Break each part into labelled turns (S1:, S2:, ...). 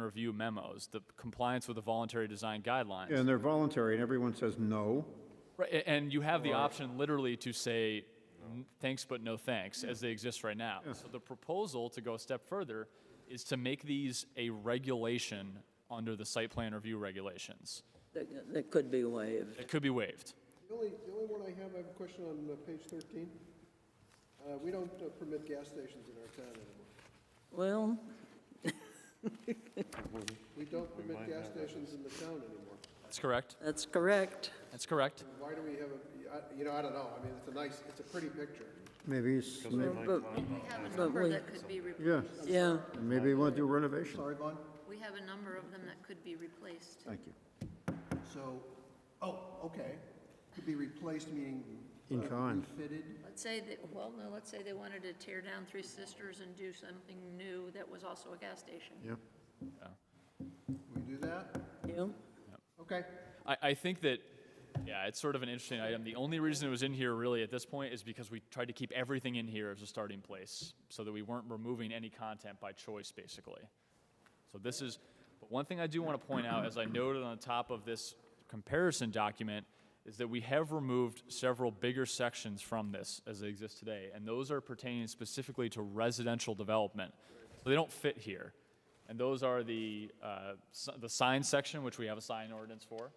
S1: review memos, the compliance with the voluntary design guidelines.
S2: And they're voluntary, and everyone says no.
S1: Right, a- and you have the option literally to say "N- thanks but no thanks, as they exist right now. So the proposal to go a step further is to make these a regulation under the site plan review regulations.
S3: That that could be waived.
S1: It could be waived.
S4: The only, the only one I have, I have a question on uh, page 13. Uh, We don't uh, permit gas stations in our town anymore.
S3: Well,
S4: We don't permit gas stations in the town anymore.
S1: That's correct.
S3: that's correct.
S1: That's correct.
S4: Why do we have a, I- you know, I don't know, I mean, it's a nice, it's a pretty picture.
S2: Maybe, it's- may-
S3: But,
S5: We have a
S3: But
S5: number
S3: we-
S5: that could be, re-
S2: yeah,
S3: yeah,
S2: maybe they want to do renovation.
S4: Sorry, Vaughn?
S5: we have a number of them that could be replaced.
S2: Thank you.
S4: So, oh, okay, could be replaced, meaning.
S2: In
S4: uh,
S2: kind.
S4: Refitted,
S5: Let's say that, well, no, let's say they wanted to tear down Three Sisters and do something new that was also a gas station.
S2: Yeah.
S4: we do that?
S3: yeah.
S4: Okay.
S1: I, I think that, yeah, it's sort of an interesting item. The only reason it was in here really at this point is because we tried to keep everything in here as a starting place so that we weren't removing any content by choice, basically. So this is, but one thing I do want to point out, as I noted on the top of this comparison document, is that we have removed several bigger sections from this as they exist today, and those are pertaining specifically to residential development. So they don't fit here. And those are the, uh, s- the sign section, which we have a sign ordinance for,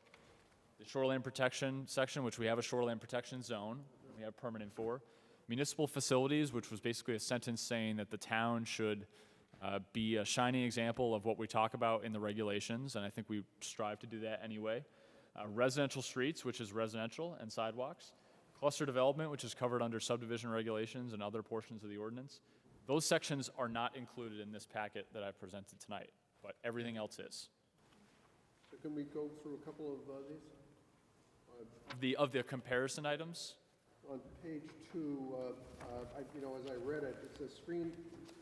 S1: the shoreline protection section, which we have a shoreline protection zone, we have permanent for. Municipal facilities, which was basically a sentence saying that the town should uh, be a shining example of what we talk about in the regulations, and I think we strive to do that anyway. Uh, Residential streets, which is residential, and sidewalks. Cluster development, which is covered under subdivision regulations and other portions of the ordinance. Those sections are not included in this packet that I presented tonight, but everything else is.
S4: So can we go through a couple of uh, these?
S1: Of The, of the comparison items,
S4: On page two, uh, uh, I- you know, as I read it, it says screen,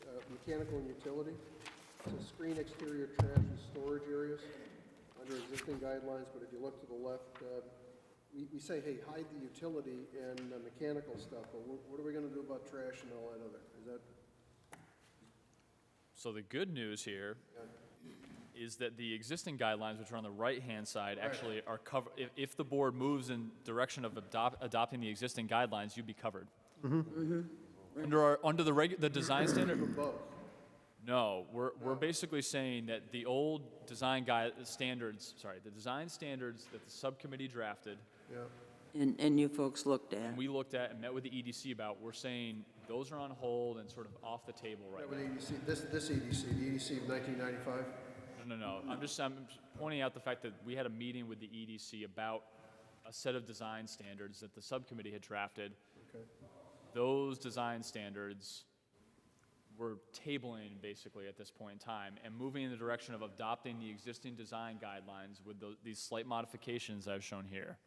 S4: uh, mechanical and utility. It says screen exterior trash and storage areas under existing guidelines, but if you look to the left, uh, we we say, hey, hide the utility and uh, mechanical stuff, but what what are we going to do about trash and all that other? Is that,
S1: So the good news here is that the existing guidelines, which are on the right-hand side, actually are covered, if, if the board moves in direction of adopt, adopting the existing guidelines, you'd be covered. Under our, under the regu, the design standard,
S4: both?
S1: no, we're, we're basically saying that the old design guide, standards, sorry, the design standards that the subcommittee drafted,
S4: Yeah.
S3: And, and you folks looked at.
S1: and we looked at and met with the EDC about, we're saying those are on hold and sort of off the table right now.
S4: That with EDC, this this EDC, the EDC of 1995?
S1: No, no, no. I'm just, I'm pointing out the fact that we had a meeting with the EDC about a set of design standards that the subcommittee had drafted.
S4: Okay.
S1: Those design standards were tabling basically at this point in time and moving in the direction of adopting the existing design guidelines with tho- these slight modifications I've shown here.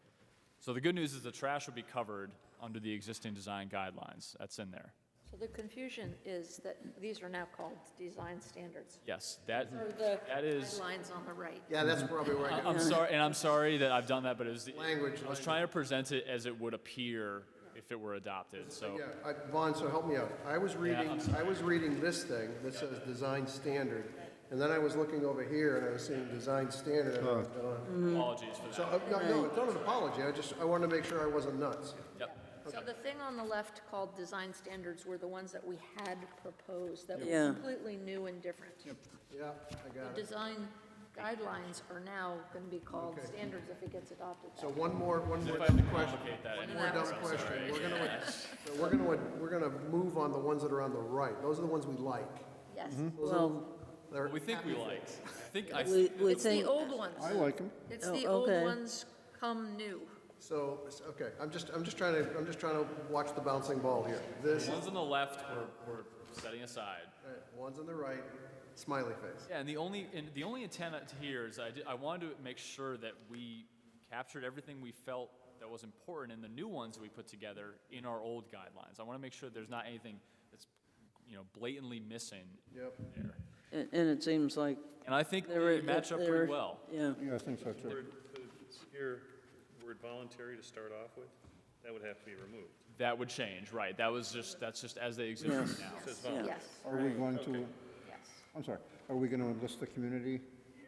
S1: So the good news is the trash will be covered under the existing design guidelines. That's in there.
S5: So the confusion is that these are now called design standards.
S1: Yes, that,
S5: Or the
S1: that is.
S5: Lines on the right.
S4: Yeah, that's probably where I got
S1: I'm sorry, and I'm sorry that I've done that, but it was. the-
S4: Language,
S1: I was trying to present it as it would appear if it were adopted, so.
S4: Yeah, I- Vaughn, so help me out. I was reading, I was reading this thing that says design standard, and then I was looking over here and I was seeing design standard. and I was going,
S3: Mm-hmm.
S1: Apologies for
S4: So,
S1: that.
S4: uh, no, no, it's not an apology, I just, I wanted to make sure I wasn't nuts.
S1: Yep.
S5: So the thing on the left called design standards were the ones that we had proposed that
S3: Yeah.
S5: were completely new and different.
S4: Yeah, I got
S5: The
S4: it.
S5: design guidelines are now going to be called standards if it gets adopted.
S4: So one more, one more
S1: If I have
S4: dumb
S1: to
S4: question.
S1: complicate that,
S4: One
S1: any-
S4: more dumb question. We're gonna, so we're gonna, we're gonna move on the ones that are on the right. Those are the ones we like.
S5: Yes.
S3: Well,
S4: They're-
S1: we think we liked, I think I,
S3: we, we
S5: It's the
S3: think,
S5: old ones.
S2: I like them.
S5: It's
S3: Oh,
S5: the old
S3: okay.
S5: ones come new.
S4: So, s- okay, I'm just, I'm just trying to, I'm just trying to watch the bouncing ball here. This,
S1: the ones on the left were, were setting aside.
S4: all right, one's on the right, smiley face.
S1: Yeah, and the only, and the only intent here is I did, I wanted to make sure that we captured everything we felt that was important in the new ones that we put together in our old guidelines. I want to make sure there's not anything that's, you know, blatantly missing
S4: Yep.
S1: there.
S3: and and it seems like
S1: And I think
S3: there were.
S1: they match up
S3: there-
S1: pretty well.
S3: Yeah,
S2: Yeah, I think so too.
S6: Word- the- Here, word voluntary to start off with, that would have to be removed.
S1: That would change, right? That was just, that's just as they exist right now.
S5: Yes.
S3: yeah.
S5: Yes,
S2: Are we going to,
S5: yes.
S2: I'm sorry, Are we going to enlist the community?